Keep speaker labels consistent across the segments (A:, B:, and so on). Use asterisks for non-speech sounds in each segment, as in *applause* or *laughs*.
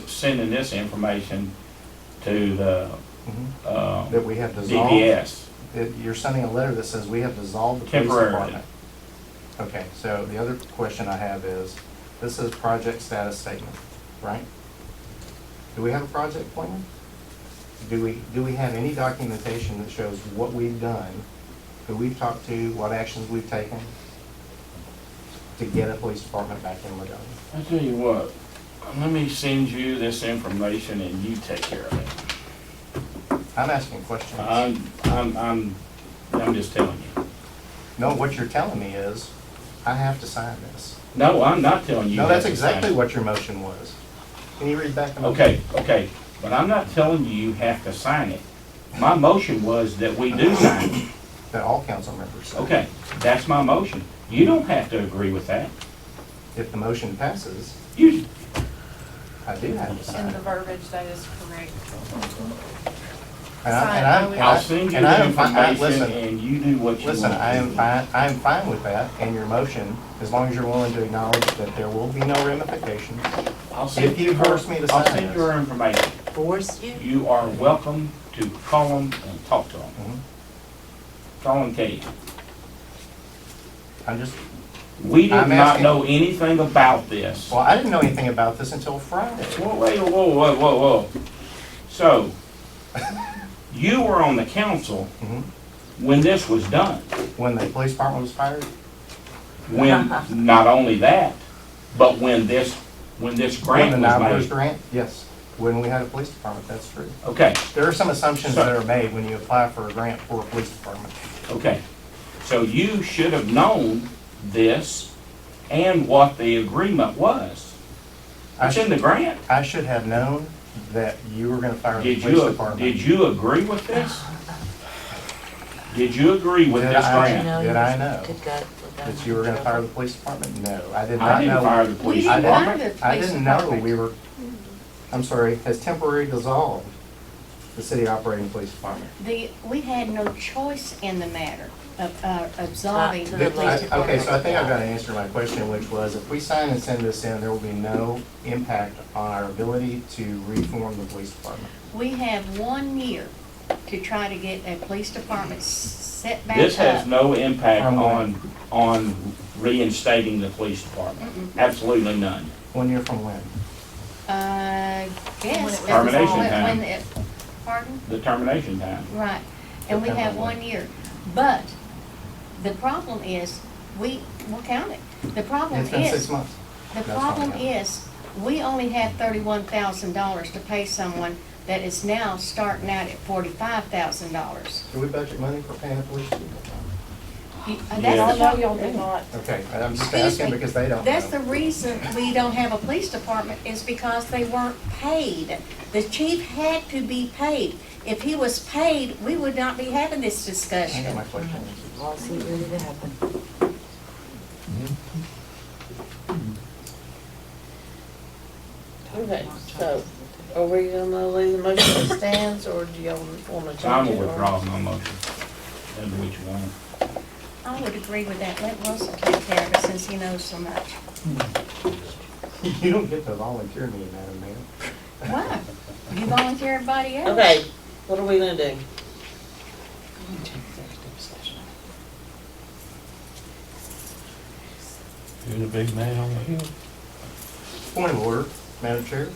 A: sending this information to the,
B: Mhm.
A: uh,
B: That we have dissolved,
A: DPS.
B: that you're sending a letter that says we have dissolved the police
A: Temporarily.
B: department. Okay, so the other question I have is, this is project status statement, right? Do we have a project plan? Do we, do we have any documentation that shows what we've done, who we've talked to, what actions we've taken to get a police department back in Ladonia?
A: I tell you what, let me send you this information and you take care of it.
B: I'm asking questions.
A: I'm, I'm, I'm, I'm just telling you.
B: No, what you're telling me is, I have to sign this.
A: No, I'm not telling you.
B: No, that's
A: to sign
B: exactly
A: it.
B: what your motion was. Can you read back the motion?
A: Okay, okay, but I'm not telling you you have to sign it. My motion was that we do sign it.
B: That all council members signed.
A: Okay, that's my motion. You don't have to agree with that.
B: If the motion passes,
A: You,
B: I do have to sign.
C: In
B: it.
C: the verbiage, that is correct.
B: And I- and
C: Sign, I would-
B: I'm-
A: I'll send you
B: and I
A: the
B: am fine- I-
A: information
B: Listen,
A: and you do what you want.
B: listen, I
A: to
B: am
A: do.
B: fine, I am fine with that and your motion, as long as you're willing to acknowledge that there will be no ramifications.
A: I'll send
B: if you force me to
A: I'll
B: sign
A: send
B: this.
A: you our information.
D: Force you?
A: You are welcome to call them and talk to them.
B: Mhm.
A: Call and Kate.
B: I'm just,
A: We did
B: I'm
A: not
B: asking-
A: know anything about this.
B: well, I didn't know anything about this until Friday.
A: Whoa, wait, whoa, whoa, whoa, whoa. So, you were on the council
B: Mhm.
A: when this was done.
B: When the police department was fired,
A: When,
B: *laughs*
A: not only that, but when this, when this
B: when the
A: grant
B: nine
A: was made.
B: grant, yes, when we had a police department, that's true.
A: Okay,
B: There are some assumptions that are made when you apply for a grant for a police department.
A: okay. So you should have known this and what the agreement was.
B: I
A: It's in the grant.
B: I should have known that you were gonna fire the
A: Did
B: police
A: you,
B: department.
A: did you agree with this? Did you agree with
B: Did
A: this
B: I-
A: grant?
B: Did I know
D: Good God.
B: that you were gonna fire the police department? No, I did
A: I
B: not
A: didn't
B: know.
A: fire the police
B: I didn't-
A: department.
B: I didn't know we were, I'm sorry, has temporarily dissolved the city operating police department.
E: The, we had no choice in the matter of uh, absolving
D: To
E: the
D: the
B: Did- I-
E: police
D: police
B: Okay, so I think I've
D: department.
B: got to answer to my question, which was if we sign and send this in, there will be no impact on our ability to reform the police department.
E: We have one year to try to get a police department s- set back up.
A: This has no impact
B: From what?
A: on, on reinstating the police department.
E: Mm-mm.
A: Absolutely none.
B: One year from when?
E: Uh,
C: When it was
E: guess.
A: Termination
E: when-
A: time.
E: when it- Pardon?
A: The termination time.
E: Right, and we
B: Depends
E: have
B: on what.
E: one year. But the problem is, we, we'll count it. The problem
B: It's been six
E: is,
B: months.
E: the
B: That's fine,
E: problem
B: yeah.
E: is, we only have thirty-one thousand dollars to pay someone that is now starting out at forty-five thousand dollars.
B: Do we budget money for paying the police people?
E: uh, That's
C: No,
E: the problem.
C: y'all did not.
B: Okay, I'm just
E: Excuse
B: asking
E: me.
B: because they don't know.
E: That's the reason we don't have a police department is because they weren't paid. The chief had to be paid. If he was paid, we would not be having
B: I
E: this
B: got
E: discussion.
B: my question.
D: Lawsuit ready to happen.
F: Okay, so are we gonna leave the motion as stands or do y'all wanna change it?
A: I'm
F: or-
A: withdrawing my motion. That's what you want.
E: I would agree with that. Let Russell take care of it since he knows so much.
B: You don't get to volunteer me, Madam Mayor.
E: Why? You volunteer everybody else?
F: Okay, what are we gonna do?
G: You're the big man on the hill.
B: Point of order, Madam Chair.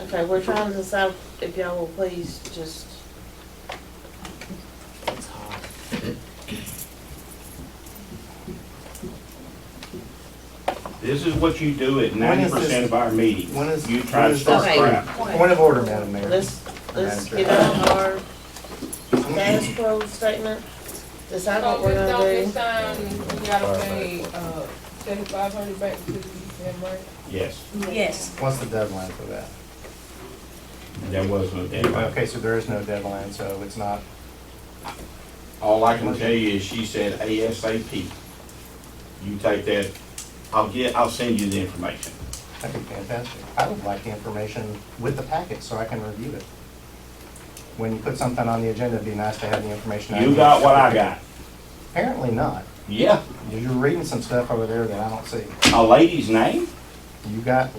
F: Okay, we're trying to decide if y'all will please just,
A: This is what you do at
B: When
A: ninety
B: is this-
A: percent of our meetings.
B: when is-
A: You try
B: when
A: to
B: is
A: start
F: this-
A: crap.
B: Point of order, Madam Mayor.
F: let's, let's
B: Madam
F: get
B: Chair.
F: on our status quo statement, decide what we're
C: Don't,
F: gonna
C: this
F: do.
C: time, we um, gotta pay, uh, seventy-five hundred back to the UCM, right?
A: Yes,
E: Yes.
B: What's the deadline for that?
A: there was no deadline.
B: Okay, so there is no deadline, so it's not,
A: All I can tell you is she said ASAP. You take that, I'll get, I'll send you the information.
B: that'd be fantastic. I would like the information with the packet so I can review it. When you put something on the agenda, it'd be nice to have the information. I
A: You
B: need.
A: got what I got.
B: Apparently not.
A: Yeah,
B: You're reading some stuff over there that I don't see.
A: a lady's name?
B: You got